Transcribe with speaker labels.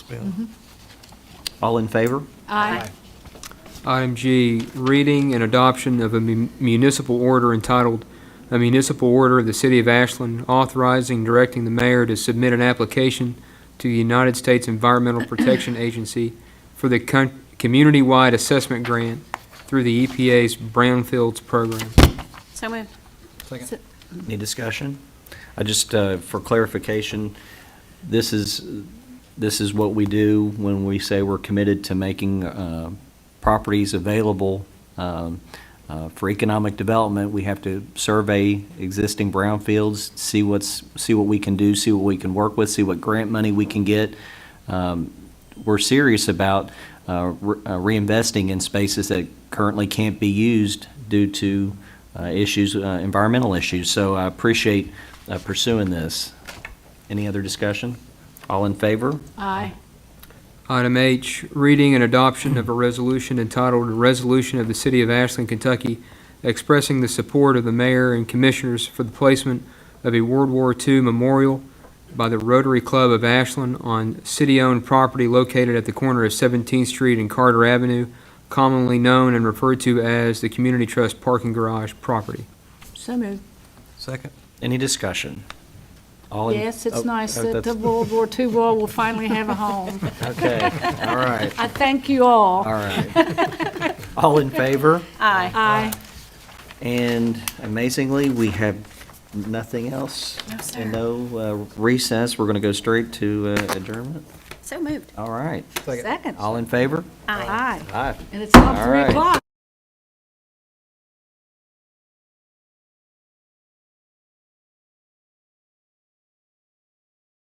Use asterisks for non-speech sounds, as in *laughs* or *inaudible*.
Speaker 1: All in favor?
Speaker 2: Aye.
Speaker 3: Item G, reading and adoption of a mu- municipal order entitled, "A Municipal Order of the City of Ashland Authorizing and Directing the Mayor to Submit an Application to the United States Environmental Protection Agency for the con- Community-Wide Assessment Grant through the EPA's Brownfields Program."
Speaker 2: So moved.
Speaker 1: Any discussion? I just, uh, for clarification, this is, this is what we do when we say we're committed to making uh, properties available um, uh, for economic development. We have to survey existing brownfields, see what's, see what we can do, see what we can work with, see what grant money we can get. Um, We're serious about uh, re- uh, reinvesting in spaces that currently can't be used due to uh, issues, uh, environmental issues. So I appreciate uh, pursuing this. Any other discussion? All in favor?
Speaker 2: Aye.
Speaker 3: Item H, reading and adoption of a resolution entitled "A Resolution of the City of Ashland, Kentucky Expressing the Support of the Mayor and Commissioners for the Placement of a World War II Memorial by the Rotary Club of Ashland on city-owned property located at the corner of 17th Street and Carter Avenue, commonly known and referred to as the Community Trust Parking Garage property."
Speaker 2: So moved.
Speaker 4: Second.
Speaker 1: Any discussion? All in-
Speaker 2: Yes, it's
Speaker 1: Oh,
Speaker 2: nice
Speaker 1: oh,
Speaker 2: that the
Speaker 1: that's-
Speaker 2: World War II wall will finally have a home.
Speaker 1: Okay,
Speaker 2: *laughs*
Speaker 1: all right,
Speaker 2: I thank you all.
Speaker 1: all right. All in favor?
Speaker 2: Aye. Aye.
Speaker 1: And amazingly, we have nothing else.
Speaker 2: No, sir.
Speaker 1: And no uh, recess. We're going to go straight to uh, adjournment.
Speaker 2: So moved.
Speaker 1: All right.
Speaker 2: Second.
Speaker 1: All in favor?
Speaker 2: Aye.
Speaker 1: Aye.
Speaker 2: And it's not
Speaker 1: All
Speaker 2: 3
Speaker 1: right.
Speaker 2: o'clock.